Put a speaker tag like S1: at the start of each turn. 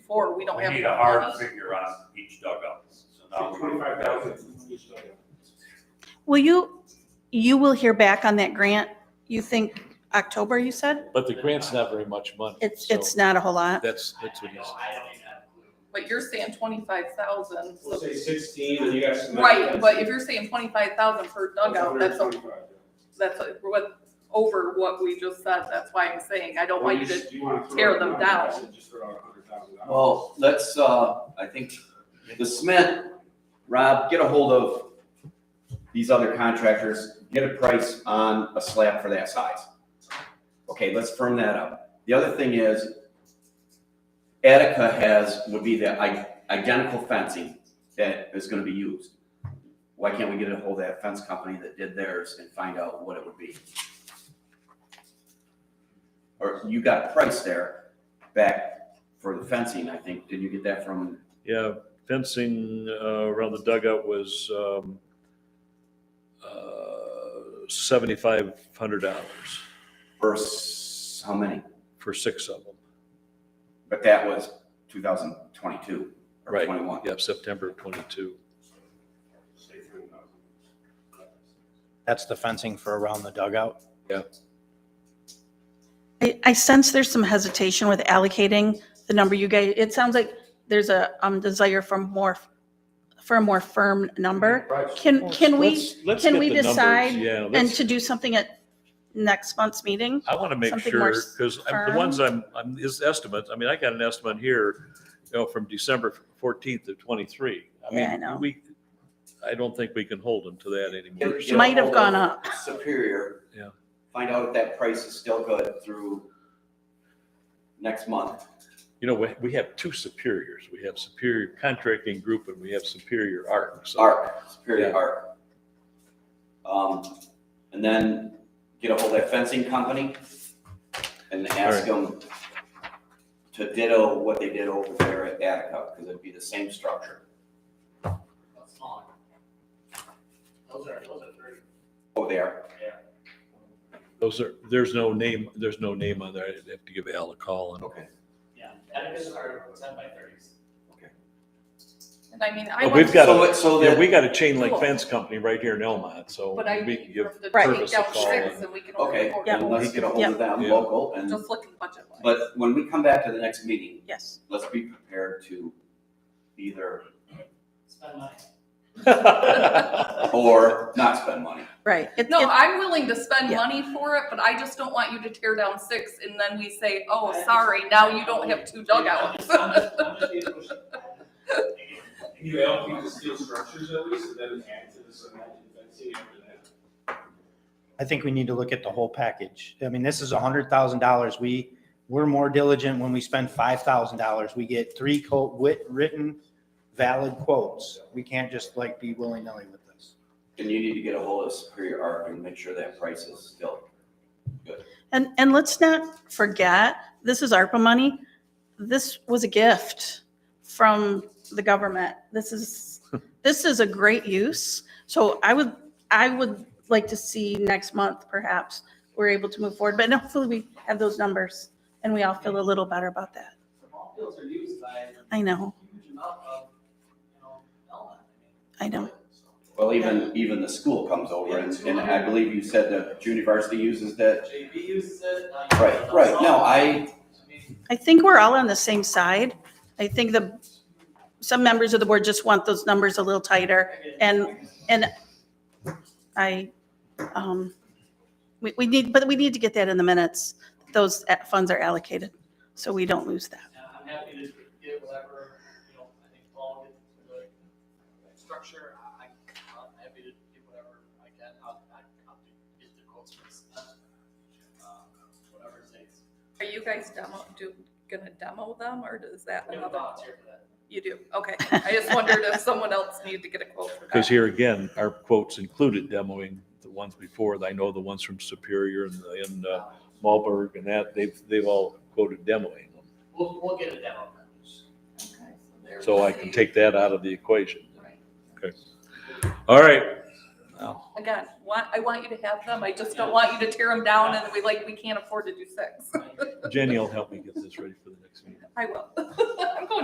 S1: forward, we don't
S2: We
S1: have.
S2: need a hard figure on each dugout, so now.
S3: Twenty-five thousand.
S4: Will you, you will hear back on that grant, you think October, you said?
S5: But the grant's not very much money.
S4: It's,
S5: so
S4: it's not a whole lot.
S5: That's, that's what he's,
S1: But you're saying twenty-five thousand,
S3: We'll say sixteen, and you got some.
S1: right, but if you're saying twenty-five thousand per dugout, that's, a-
S3: 125, yeah.
S1: that's a- what, over what we just said, that's why I'm saying, I don't
S3: Or
S1: want you to,
S3: just- you wanna throw
S1: tear
S3: out
S1: them
S3: numbers,
S1: down.
S3: I said just throw out $100,000.
S6: Well, let's, uh, I think the Smith, Rob, get a hold of these other contractors, get a price on a slab for that size. Okay, let's firm that up. The other thing is Attica has, would be the i- identical fencing that is gonna be used. Why can't we get a hold of that fence company that did theirs and find out what it would be? Or you got a price there back for the fencing, I think. Did you get that from,
S5: yeah, fencing uh, around the dugout was um, uh, $7,500
S6: for s- how many?
S5: for six of them.
S6: But that was 2022 or
S5: Right.
S6: 21.
S5: Yeah, September of 22.
S3: Say $10,000.
S7: That's the fencing for around the dugout?
S4: I, I sense there's some hesitation with allocating the number you gave. It sounds like there's a, um, desire for more, for a more firm number.
S3: Right.
S4: Can, can we,
S5: Let's- let's
S4: can
S5: get
S4: we
S5: the numbers,
S4: decide
S5: Yeah,
S4: and
S5: let's-
S4: to do something at next month's meeting?
S5: I want to make
S4: something more
S5: sure, because the
S4: firm?
S5: ones I'm, I'm, his estimates, I mean, I got an estimate here, you know, from December 14th of 23. I
S4: Yeah, I know.
S5: mean, we, I don't think we can hold him to that anymore.
S6: Get-
S5: so-
S6: get
S4: Might have
S6: ahold
S4: gone
S6: of
S4: up.
S6: Superior.
S5: Yeah.
S6: Find out if that price is still good through next month.
S5: You know, we, we have two superiors. We have Superior Contracting Group and we have Superior Art. so-
S6: Art,
S5: Yeah.
S6: Superior Art. Um, and then get ahold of that fencing company and ask them to ditto what they did over there at Attica, because it'd be the same structure.
S8: Those are, those are three.
S6: Oh, they are.
S5: Those are, there's no name, there's no name on there. I'd have to give Al a call and.
S6: Okay.
S8: Yeah, Atticus are ten by thirties.
S1: and I mean, I
S5: But
S1: want.
S5: we've got,
S6: So
S5: a-
S6: it- so
S5: yeah,
S6: that-
S5: we got a chain link fence company right here in Elmont, so
S1: But I
S5: we
S1: need
S5: can give,
S1: room to
S4: Right.
S1: take
S5: Purvis a
S1: down
S5: call
S1: six
S5: and-
S1: and we can only
S6: Okay,
S1: afford
S6: then
S1: one.
S6: let's get a hold of them
S5: Yeah.
S6: local and,
S1: Just look at budget line.
S6: but when we come back to the next meeting,
S4: Yes.
S6: let's be prepared to either,
S8: Spend money.
S6: or not spend money.
S4: Right. It-
S1: No,
S4: it-
S1: I'm willing to spend
S4: Yeah.
S1: money for it, but I just don't want you to tear down six and then we say, oh,
S8: I
S1: sorry, now you don't have two dugouts.
S8: I'm just- I'm just being pushy.
S3: Can you allocate the steel structures at least, and then add to this imagined fencing after that?
S7: I think we need to look at the whole package. I mean, this is a hundred thousand dollars. We, we're more diligent when we spend five thousand dollars. We get three quote, wit, written, valid quotes. We can't just like be willy-nilly with this.
S6: And you need to get a hold of Superior Art and make sure that price is still.
S4: And, and let's not forget, this is ARPA money. This was a gift from the government. This is, this is a great use. So I would, I would like to see next month perhaps we're able to move forward, but hopefully we have those numbers and we all feel a little better about that.
S8: The ball fields are used by a
S4: I know,
S8: huge amount of, you know, Belmont.
S4: I
S8: mean,
S4: know.
S6: Well, even, even the school comes over and, and I believe you said the junior varsity uses that.
S8: JV uses it. now you have
S6: Right,
S8: it on
S6: right. No,
S8: softball.
S6: I,
S8: I mean,
S4: I think we're all on the same side. I think the, some members of the board just want those numbers a little tighter.
S8: I mean,
S4: And- I, um, we, we need, but we need to get that in the minutes. Those uh, funds are allocated, so we don't lose that.
S8: Yeah, I'm happy to get whatever, you know, I think Paul gets into the structure, I, I'm happy to get whatever I can, I'll, I'll get the quotes for this. um, Whatever it takes.
S1: Are you guys demo, do, gonna demo them or is that
S8: We have a
S1: another?
S8: volunteer for that.
S1: You do, okay. I just wondered if someone else needed to get a quote for that.
S5: Because here again, our quotes included demoing the ones before. I know the ones from Superior and, the- and uh, Malberg and that, they've, they've all quoted demoing them.
S8: We'll, we'll get a demo. There
S5: So
S8: we'll
S5: I can
S8: see.
S5: take that out of the equation.
S1: Right.
S5: Okay. All right.
S1: Again, want, I want you to have them, I just don't want you to tear them down and we like, we can't afford to do six.
S5: Jenny will help me get this ready for the next meeting.
S1: I will. I'm going